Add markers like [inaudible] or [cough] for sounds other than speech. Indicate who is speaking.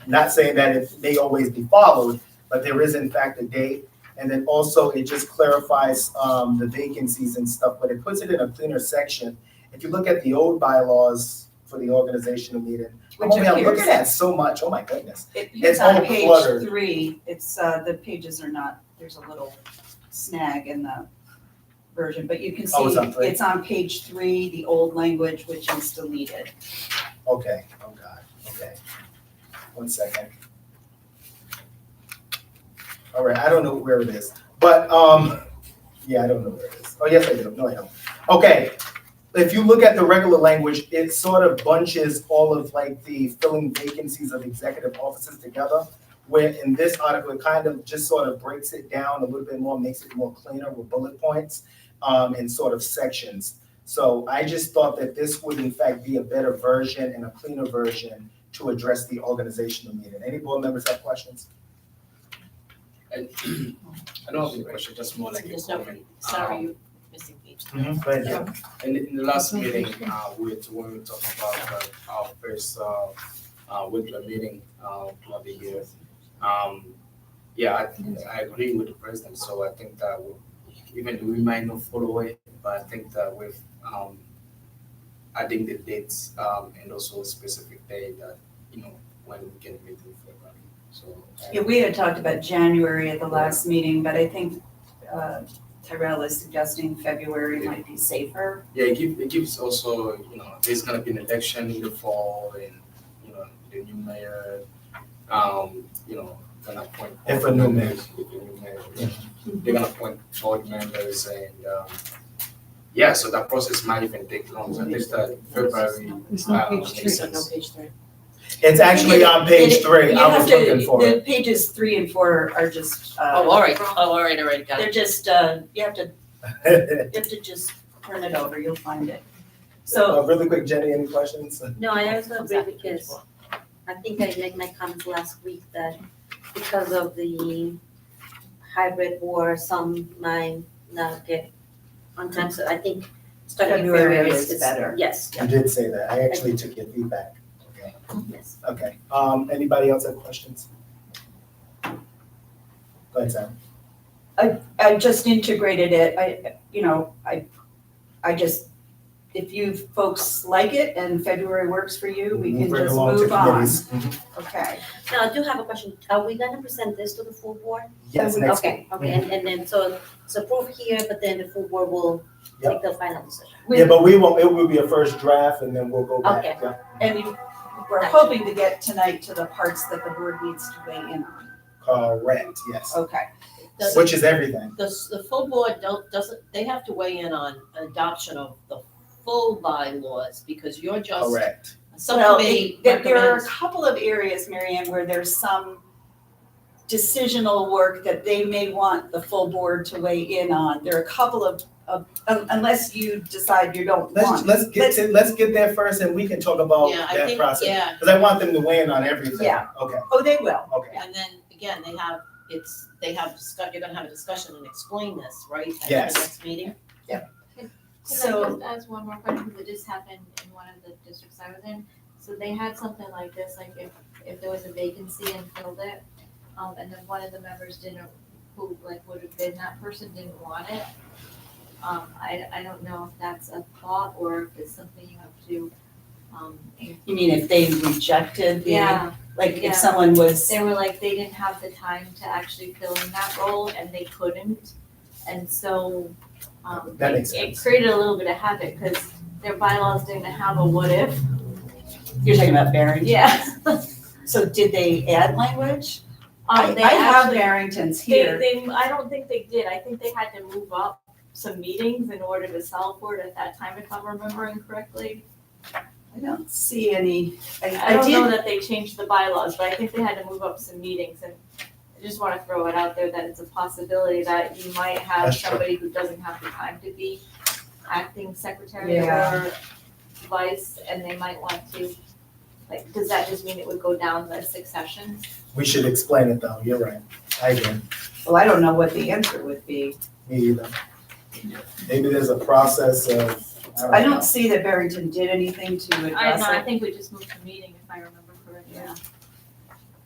Speaker 1: Not saying that it may always be followed, but there is in fact a date. And then also it just clarifies um, the vacancies and stuff, but it puts it in a cleaner section. If you look at the old bylaws for the organizational meeting, I'm
Speaker 2: Which
Speaker 1: only- I'm looking
Speaker 2: appears-
Speaker 1: Oh, at so much, oh my goodness.
Speaker 2: It-
Speaker 1: It's
Speaker 2: It's on
Speaker 1: all cluttered.
Speaker 2: page three, it's, uh, the pages are not, there's a little snag in the version, but you can see
Speaker 1: Oh, it's on three?
Speaker 2: it's on page three, the old language, which is deleted.
Speaker 1: Okay, oh God, okay. One second. All right, I don't know where it is, but, um, yeah, I don't know where it is. Oh, yes, I do, no, I don't. Okay, if you look at the regular language, it sort of bunches all of like the filling vacancies of executive offices together. Where in this article, it kind of just sort of breaks it down a little bit more, makes it more cleaner with bullet points, um, and sort of sections. So I just thought that this would in fact be a better version and a cleaner version to address the organizational meeting. Any board members have questions?
Speaker 3: I don't have any question, just more like a
Speaker 4: There's no,
Speaker 3: comment.
Speaker 2: Um,
Speaker 4: sorry, you missing page.
Speaker 1: Go ahead, Jim.
Speaker 3: In, in the last meeting, uh, we, were- when we talked about uh, our first, uh, uh, regular meeting, uh, of the year. Um, yeah, I, I agree with the president, so I think that we, even though we might not follow it, but I think that with, um, adding the dates, um, and also specific day that, you know, when we can meet in February, so. I-
Speaker 2: Yeah, we had talked about January at the last meeting, but I think, uh, Tyrell is suggesting February might be safer.
Speaker 3: Yeah, it gives, it gives also, you know, there's gonna be an election in the fall and, you know, the new mayor, um, you know, gonna appoint.
Speaker 1: If a new mayor.
Speaker 3: If a new mayor, yeah. They're gonna appoint board members and, um, yeah, so that process might even take longer. I think that February, um,
Speaker 4: There's
Speaker 3: no page three.
Speaker 4: So no page three.
Speaker 1: It's actually on page
Speaker 2: It-
Speaker 1: three.
Speaker 2: You
Speaker 1: I
Speaker 2: have
Speaker 1: was
Speaker 2: to-
Speaker 1: looking for
Speaker 2: The
Speaker 1: it.
Speaker 2: pages three and four are just,
Speaker 4: Oh,
Speaker 2: uh,
Speaker 4: all right, oh, all right, all right, got
Speaker 2: they're
Speaker 4: it.
Speaker 2: just, uh, you have to,
Speaker 1: [laughs]
Speaker 2: you have to just turn it over, you'll find it. So,
Speaker 1: Uh, Really quick, Jenny, any questions?
Speaker 5: No, I also agree because I think I made my comment last week that because of the hybrid war, some might not get on time, so I think starting in
Speaker 2: February
Speaker 5: February
Speaker 2: is
Speaker 5: is, is-
Speaker 2: better.
Speaker 5: yes,
Speaker 1: You did say that. I actually took your feedback. Okay,
Speaker 5: yes.
Speaker 1: okay. Um, anybody else have questions? Go ahead, Sam.
Speaker 2: I just integrated it, I, you know, I, I just, if you folks like it and February works for you, we can
Speaker 1: Bring
Speaker 2: just
Speaker 1: along to
Speaker 2: move on.
Speaker 1: committees. Mhm.
Speaker 2: Okay,
Speaker 5: Now, I do have a question, are we gonna present this to the full board?
Speaker 1: Yes, next.
Speaker 5: Okay, okay, and, and then so it's approved here, but then the full board will
Speaker 1: Yep.
Speaker 5: take the final decision.
Speaker 1: Yeah,
Speaker 2: we,
Speaker 1: but we won't, it will be a first draft and then we'll go back.
Speaker 5: Okay.
Speaker 1: Yeah,
Speaker 2: and you- we're hoping to get tonight to the parts that the board needs to weigh in on,
Speaker 1: Correct, yes.
Speaker 2: okay.
Speaker 4: The-
Speaker 1: Which is everything.
Speaker 4: The, the full board don't, doesn't, they have to weigh in on adoption of the full bylaws, because you're just,
Speaker 1: Correct.
Speaker 4: some
Speaker 2: Well,
Speaker 4: committee
Speaker 2: it- there- There are a
Speaker 4: recommends.
Speaker 2: couple of areas, Marianne, where there's some decisional work that they may want the full board to weigh in on. There are a couple of, of, un- unless you decide you don't
Speaker 1: Let's,
Speaker 2: want.
Speaker 1: let's get to, let's get there first and we can talk about
Speaker 4: Yeah, I
Speaker 1: that
Speaker 4: think,
Speaker 1: process.
Speaker 4: yeah,
Speaker 1: Cause I want them to weigh in on everything.
Speaker 2: Yeah.
Speaker 1: Okay,
Speaker 2: Oh, they will.
Speaker 1: okay.
Speaker 4: and then, again, they have, it's, they have, discuss- you're gonna have a discussion and explain this, right? At the
Speaker 1: Yes.
Speaker 4: next meeting?
Speaker 6: Could
Speaker 2: So-
Speaker 6: I just ask one more question, because it just happened in one of the districts I was in, so they had something like this, like if, if there was a vacancy and filled it, um, and then one of the members didn't, who like would have been that person didn't want it. Um, I, I don't know if that's a thought or if it's something you have to, um,
Speaker 2: You mean if they rejected the,
Speaker 6: yeah,
Speaker 2: like
Speaker 6: Yeah.
Speaker 2: if someone was,
Speaker 6: they were like, they didn't have the time to actually fill in that role and they couldn't. And so, um,
Speaker 1: That makes
Speaker 6: it- it
Speaker 1: sense.
Speaker 6: created a little bit of havoc, cause their bylaws didn't have a what if,
Speaker 2: you're talking about Barrington?
Speaker 6: Yeah.
Speaker 2: So did they add language? I,
Speaker 6: Um, they
Speaker 2: I have
Speaker 6: actually,
Speaker 2: Barringtons
Speaker 6: they,
Speaker 2: here.
Speaker 6: they, I don't think they did, I think they had to move up some meetings in order to solve for it at that time, if I'm remembering correctly.
Speaker 2: I don't see any,
Speaker 6: I
Speaker 2: I, I
Speaker 6: don't know
Speaker 2: did,
Speaker 6: that they changed the bylaws, but I think they had to move up some meetings and I just wanna throw it out there that it's a possibility that you might have
Speaker 1: That's true.
Speaker 6: somebody who doesn't have the time to be acting secretary
Speaker 2: Yeah.
Speaker 6: or vice, and they might want to, like, does that just mean it would go down the succession?
Speaker 1: We should explain it though, you're right. I agree,
Speaker 2: well, I don't know what the answer would be.
Speaker 1: me either. Maybe there's a process of,
Speaker 2: I don't see that Barrington did anything to address it.
Speaker 6: I don't know, I think we just moved the meeting if I remember correctly.
Speaker 2: Yeah.